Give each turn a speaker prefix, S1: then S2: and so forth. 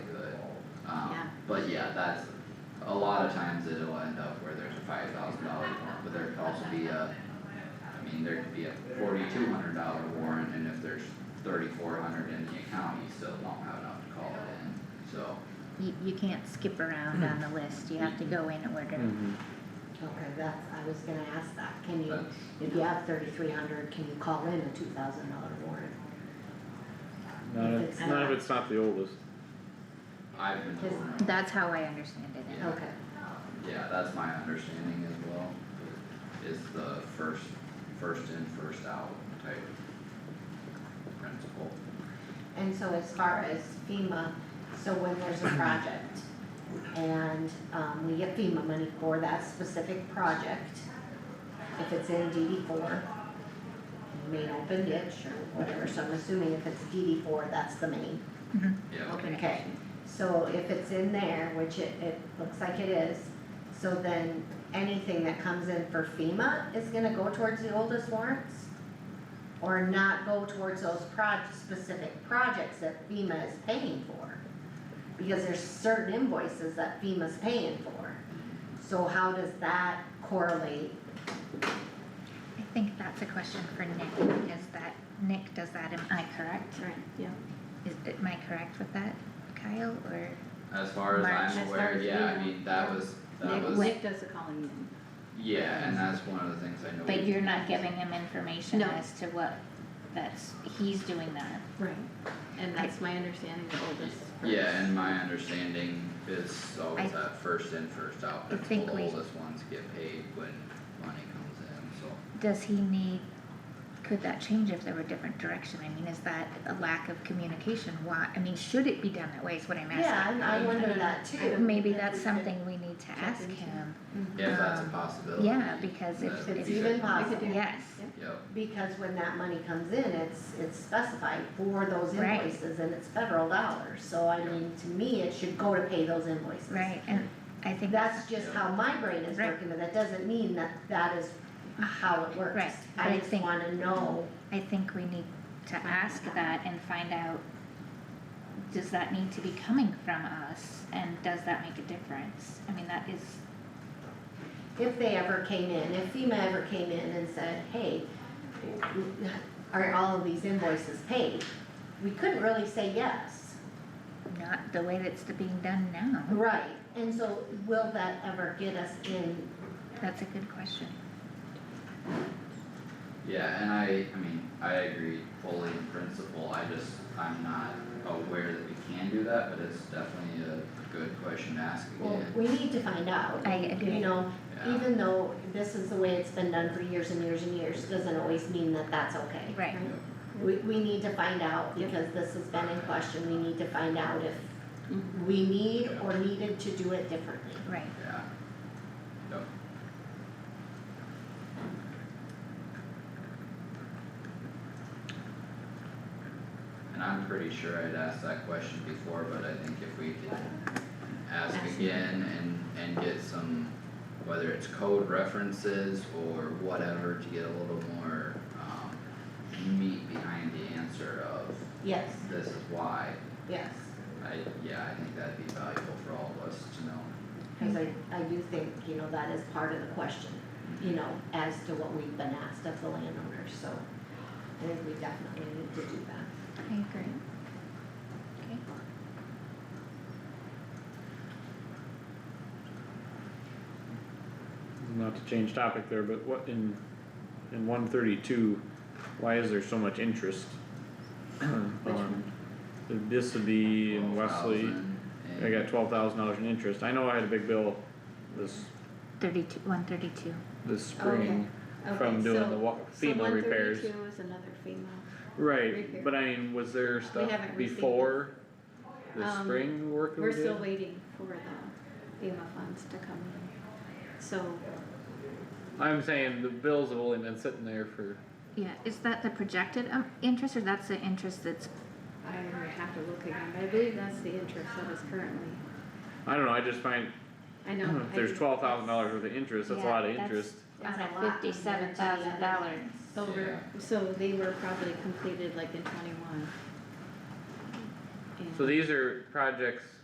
S1: Um, But yeah, that's, a lot of times it'll end up where there's a five thousand dollar warrant, but there could also be a, I mean, there could be a forty-two hundred dollar warrant, and if there's thirty-four hundred in the account, you still don't have enough to call it in, so.
S2: You, you can't skip around on the list, you have to go in order.
S3: Hmm. Mm-hmm.
S4: Okay, that's, I was gonna ask that, can you,
S1: that's-
S4: if you have thirty-three hundred, can you call in a two thousand dollar warrant?
S3: Not
S4: If
S3: if,
S4: it's
S3: not
S4: not.
S3: if it's not the oldest.
S1: I've been told, no.
S2: That's how I understand it.
S1: Yeah.
S4: Okay,
S1: yeah, that's my understanding as well, is the first, first in, first out type principle.
S4: and so as far as FEMA, so when there's a project and, um, we get FEMA money for that specific project, if it's in DD four, main open ditch or whatever, so I'm assuming if it's DD four, that's the main.
S1: Yeah,
S4: Okay. So if it's in there, which it, it looks like it is, so then anything that comes in for FEMA is gonna go towards the oldest warrants? Or not go towards those proj- specific projects that FEMA is paying for? Because there's certain invoices that FEMA's paying for. So how does that correlate?
S2: I think that's a question for Nick, because that, Nick does that, am I correct?
S5: Right, yeah.
S2: Is, am I correct with that, Kyle, or?
S1: as far as
S2: March, as
S1: I'm
S5: far
S1: aware,
S5: as
S1: yeah, I
S5: we know.
S1: mean, that was, that
S5: Nick,
S1: was,
S5: Nick does the calling in.
S1: yeah, and that's one of the things I know.
S2: But
S1: we-
S2: you're not giving him information
S5: No.
S2: as to what, that's, he's doing that.
S5: Right. And that's my understanding, the oldest first.
S1: Yeah, and my understanding is always
S2: I-
S1: that first in, first out,
S2: I
S1: that's the
S2: think we-
S1: oldest ones get paid when money comes in, so.
S2: Does he need, could that change if there were different direction? I mean, is that a lack of communication? Why, I mean, should it be done that way is what I'm asking.
S4: Yeah, I, I wonder that too.
S2: Maybe that's something we need to
S5: check
S2: ask
S5: into.
S2: him,
S1: If that's a
S2: Um,
S1: possibility.
S2: yeah, because if,
S1: that
S4: It's
S1: we
S2: if,
S4: even
S1: could-
S4: possible.
S2: yes,
S1: Yep,
S4: Because when that money comes in, it's, it's specified for those
S2: Right.
S4: invoices and it's federal dollars, so I mean, to me, it should go to pay those invoices.
S2: right, and I think that's,
S4: That's just how my brain is
S2: Right.
S4: working, but that doesn't mean that that is how it works.
S2: Right, but I
S4: I just
S2: think-
S4: wanna know,
S2: I think we need to ask that and find out, does that need to be coming from us? And does that make a difference? I mean, that is,
S4: if they ever came in, if FEMA ever came in and said, hey, are all of these invoices paid? We couldn't really say yes,
S2: not the way that's being done now.
S4: right, and so will that ever get us in,
S2: That's a good question.
S1: yeah, and I, I mean, I agree fully in principle, I just, I'm not aware that we can do that, but it's definitely a good question to ask
S4: well,
S1: again,
S4: we need to find out.
S2: I agree.
S4: You know,
S1: yeah,
S4: even though this is the way it's been done for years and years and years, doesn't always mean that that's okay.
S2: Right,
S1: yep,
S4: We, we need to find out,
S5: Yep.
S4: because this has been in question, we need to find out if
S5: Mhm.
S4: we need or needed to do it differently.
S2: right.
S1: yeah. Yep, and I'm pretty sure I'd asked that question before, but I think if we could ask
S5: Ask.
S1: again and, and get some, whether it's code references or whatever, to get a little more, um, meat behind the answer of
S4: Yes,
S1: this is why,
S4: yes,
S1: I, yeah, I think that'd be valuable for all of us to know.
S4: cause I, I do think, you know, that is part of the question, you know, as to what we've been asked of the landowners, so I think we definitely need to do that.
S2: I agree. Okay.
S3: Not to change topic there, but what in, in one thirty-two, why is there so much interest? on This would be in Wesley,
S1: 12,000 and-
S3: I got twelve thousand dollars in interest, I know I had a big bill this,
S2: Thirty-two, one thirty-two.
S3: this
S5: Oh,
S3: spring from doing the wa- FEMA repairs.
S5: So one thirty-two is another FEMA, repair.
S3: Right, but I mean, was there stuff
S5: haven't received it.
S3: before the
S5: Um,
S3: spring work we
S5: we're
S3: did?
S5: still waiting for the FEMA funds to come in, so.
S3: I'm saying the bills have only been sitting there for
S2: Yeah, is that the projected um interest or that's the interest that's,
S5: I would have to look again, but I believe that's the interest that is currently,
S3: I don't know, I just find,
S5: I know.
S3: Hmm, if
S5: I
S3: Mm-hmm. there's
S5: think
S3: twelve thousand dollars worth of interest, that's a
S2: Yeah,
S3: lot of
S2: that's-
S3: interest.
S4: That's
S2: on
S4: a
S2: a
S4: lot compared to the other
S2: $57,000
S4: ones.
S5: that's Over, so they were probably completed like in twenty-one.
S3: So
S5: And-
S3: these are projects